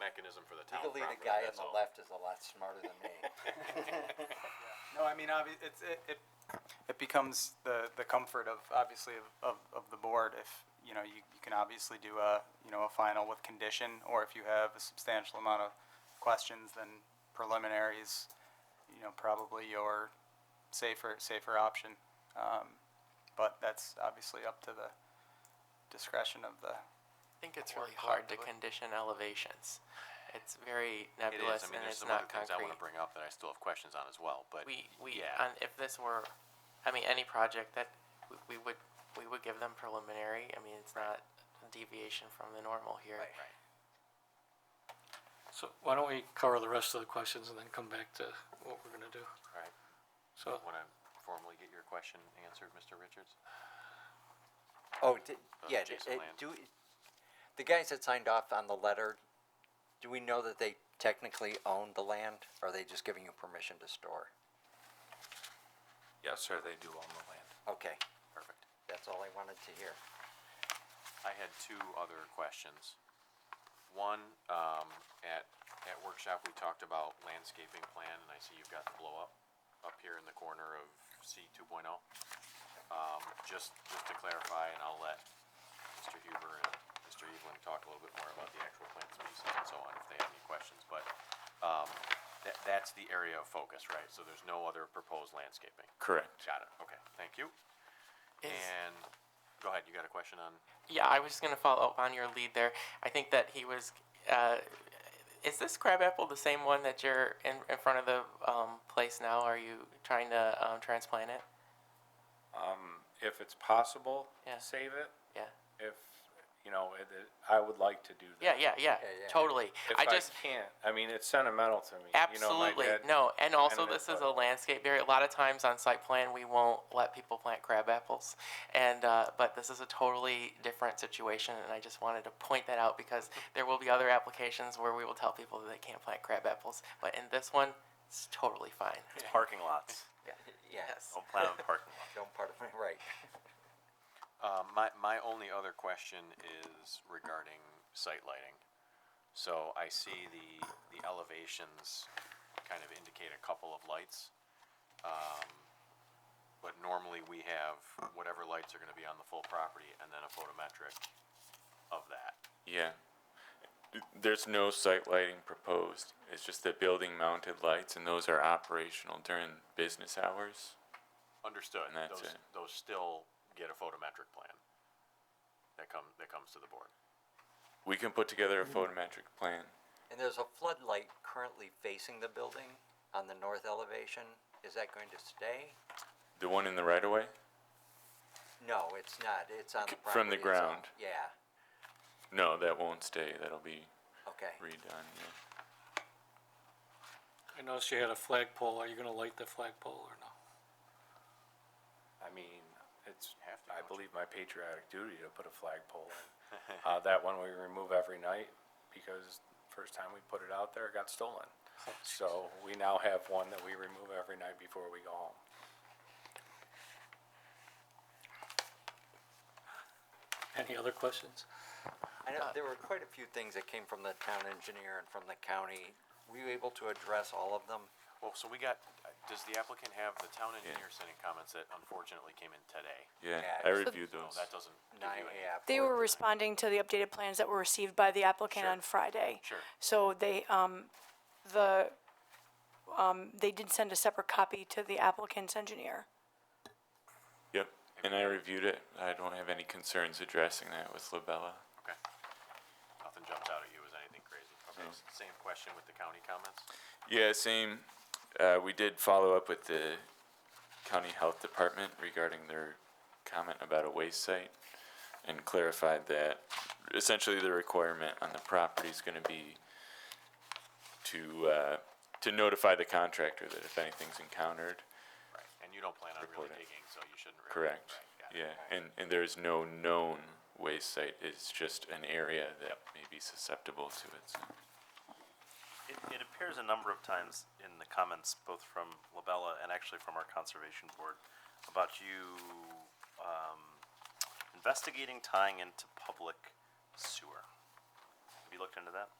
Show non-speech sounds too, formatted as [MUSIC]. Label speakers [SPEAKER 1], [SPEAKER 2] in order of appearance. [SPEAKER 1] mechanism for the town
[SPEAKER 2] Legally,
[SPEAKER 1] property,
[SPEAKER 2] the guy on
[SPEAKER 1] that's
[SPEAKER 2] the
[SPEAKER 1] all.
[SPEAKER 2] left is a lot smarter than
[SPEAKER 1] [LAUGHS]
[SPEAKER 2] me. [LAUGHS]
[SPEAKER 3] No, I mean, obvi- it's, it, it, it becomes the, the comfort of, obviously, of, of, of the board if, you know, you, you can obviously do a, you know, a final with condition, or if you have a substantial amount of questions, then preliminaries, you know, probably your safer, safer option. Um, But that's obviously up to the discretion of the,
[SPEAKER 4] I think it's
[SPEAKER 3] Or
[SPEAKER 4] really hard to
[SPEAKER 3] collaboratively.
[SPEAKER 4] condition elevations. It's
[SPEAKER 1] It
[SPEAKER 4] very
[SPEAKER 1] is,
[SPEAKER 4] nebulous
[SPEAKER 1] I mean,
[SPEAKER 4] and
[SPEAKER 1] there's
[SPEAKER 4] it's
[SPEAKER 1] some other
[SPEAKER 4] not
[SPEAKER 1] things I wanna bring
[SPEAKER 4] concrete.
[SPEAKER 1] up that I still have questions on as well, but.
[SPEAKER 4] We, we,
[SPEAKER 1] yeah.
[SPEAKER 4] on, if this were, I mean, any project that, we, we would, we would give them preliminary, I mean, it's not a deviation from the normal here.
[SPEAKER 1] Right.
[SPEAKER 5] So why don't we cover the rest of the questions and then come back to what we're gonna do?
[SPEAKER 1] Alright,
[SPEAKER 5] So,
[SPEAKER 1] wanna formally get your question answered, Mr. Richards?
[SPEAKER 2] Oh, did,
[SPEAKER 1] Uh,
[SPEAKER 2] yeah,
[SPEAKER 1] Jason
[SPEAKER 2] uh,
[SPEAKER 1] Land.
[SPEAKER 2] do, the guys that signed off on the letter, do we know that they technically own the land? Or are they just giving you permission to store?
[SPEAKER 6] Yes, sir, they do own the land.
[SPEAKER 2] Okay,
[SPEAKER 1] Perfect.
[SPEAKER 2] that's all I wanted to hear.
[SPEAKER 1] I had two other questions. One, um, at, at workshop, we talked about landscaping plan, and I see you've got the blow up, up here in the corner of C two oh. Um, just, just to clarify, and I'll let Mr. Huber and Mr. Evelyn talk a little bit more about the actual plant species and so on, if they have any questions, but, um, that, that's the area of focus, right? So there's no other proposed landscaping?
[SPEAKER 6] Correct.
[SPEAKER 1] Got it, okay, thank you.
[SPEAKER 4] Is-
[SPEAKER 1] And, go ahead, you got a question on?
[SPEAKER 4] Yeah, I was just gonna follow up on your lead there. I think that he was, uh, is this crabapple the same one that you're in, in front of the, um, place now? Are you trying to, um, transplant it?
[SPEAKER 6] If it's possible,
[SPEAKER 4] Yeah.
[SPEAKER 6] save it.
[SPEAKER 4] Yeah.
[SPEAKER 6] If, you know, it, it- I would like to do that.
[SPEAKER 4] Yeah, yeah, yeah,
[SPEAKER 2] Yeah, yeah.
[SPEAKER 4] totally.
[SPEAKER 6] If
[SPEAKER 4] I
[SPEAKER 6] I
[SPEAKER 4] just,
[SPEAKER 6] can't, I mean, it's sentimental to me. You know, my
[SPEAKER 4] Absolutely.
[SPEAKER 6] dad-
[SPEAKER 4] No, and also
[SPEAKER 6] planted
[SPEAKER 4] this
[SPEAKER 6] it,
[SPEAKER 4] is a
[SPEAKER 6] but-
[SPEAKER 4] landscape area. A lot of times on site plan, we won't let people plant crab apples. And, uh, but this is a totally different situation and I just wanted to point that out because there will be other applications where we will tell people that they can't plant crab apples. But in this one, it's totally fine.
[SPEAKER 7] Parking lots.
[SPEAKER 2] Yes,
[SPEAKER 6] Oh,
[SPEAKER 7] Don't plan on parking lots.
[SPEAKER 2] don't part of me, [LAUGHS] right.
[SPEAKER 1] Uh, my, my only other question is regarding site lighting. So I see the, the elevations kind of indicate a couple of lights. Um, But normally we have whatever lights are gonna be on the full property and then a photometric of that.
[SPEAKER 8] Yeah. There's no site lighting proposed. It's just the building mounted lights and those are operational during business hours.
[SPEAKER 1] Understood,
[SPEAKER 8] And that's
[SPEAKER 1] those,
[SPEAKER 8] it.
[SPEAKER 1] those still get a photometric plan that come, that comes to the board.
[SPEAKER 8] We can put together a photometric plan.
[SPEAKER 2] And there's a floodlight currently facing the building on the north elevation. Is that going to stay?
[SPEAKER 8] The one in the right of way?
[SPEAKER 2] No, it's not. It's on the property.
[SPEAKER 8] From the
[SPEAKER 2] itself.
[SPEAKER 8] ground.
[SPEAKER 2] Yeah,
[SPEAKER 8] No, that won't stay. That'll be
[SPEAKER 2] okay.
[SPEAKER 8] redone. yeah.
[SPEAKER 5] I noticed you had a flagpole. Are you gonna light the flagpole or no?
[SPEAKER 6] I mean, it's,
[SPEAKER 1] Have to,
[SPEAKER 6] I
[SPEAKER 1] don't you?
[SPEAKER 6] believe my patriotic duty to put a flagpole in. Uh, that one we remove every night because first time we put it out there, it got stolen.
[SPEAKER 4] Oh,
[SPEAKER 6] So we now have one that we remove every night before we go home.
[SPEAKER 5] Any other questions?
[SPEAKER 2] I
[SPEAKER 9] Uh,
[SPEAKER 2] know, there were quite a few things that came from the town engineer and from the county. Were you able to address all of them?
[SPEAKER 1] Well, so we got, does the applicant have, the town engineer sending comments that unfortunately came in today?
[SPEAKER 8] Yeah,
[SPEAKER 2] Yeah,
[SPEAKER 8] I
[SPEAKER 2] it's-
[SPEAKER 8] reviewed
[SPEAKER 1] So
[SPEAKER 8] those.
[SPEAKER 1] Oh, that doesn't give
[SPEAKER 2] Nine,
[SPEAKER 1] you any.
[SPEAKER 2] yeah.
[SPEAKER 9] They
[SPEAKER 2] four.
[SPEAKER 9] were responding to the updated plans that were received by the applicant
[SPEAKER 1] Sure.
[SPEAKER 9] on Friday.
[SPEAKER 1] Sure.
[SPEAKER 9] So they, um, the, um, they did send a separate copy to the applicant's engineer.
[SPEAKER 8] Yep, and I reviewed it. I don't have any concerns addressing that with Labella.
[SPEAKER 1] Okay. Nothing jumped out at you as anything crazy. Okay, s- same question with the county comments?
[SPEAKER 8] Yeah, same. Uh, we did follow up with the county health department regarding their comment about a waste site and clarified that essentially the requirement on the property is going to be to uh, to notify the contractor that if anything's encountered,
[SPEAKER 1] Right. And you don't plan on really
[SPEAKER 8] Report it.
[SPEAKER 1] digging, so you shouldn't really.
[SPEAKER 8] correct.
[SPEAKER 1] Right, got it.
[SPEAKER 8] Yeah, and and there's no known waste site. It's just an area that may be susceptible to it. So.
[SPEAKER 7] It, it appears a number of times in the comments, both from Labella and actually from our conservation board, about you, um, investigating tying into public sewer. Have you looked into that?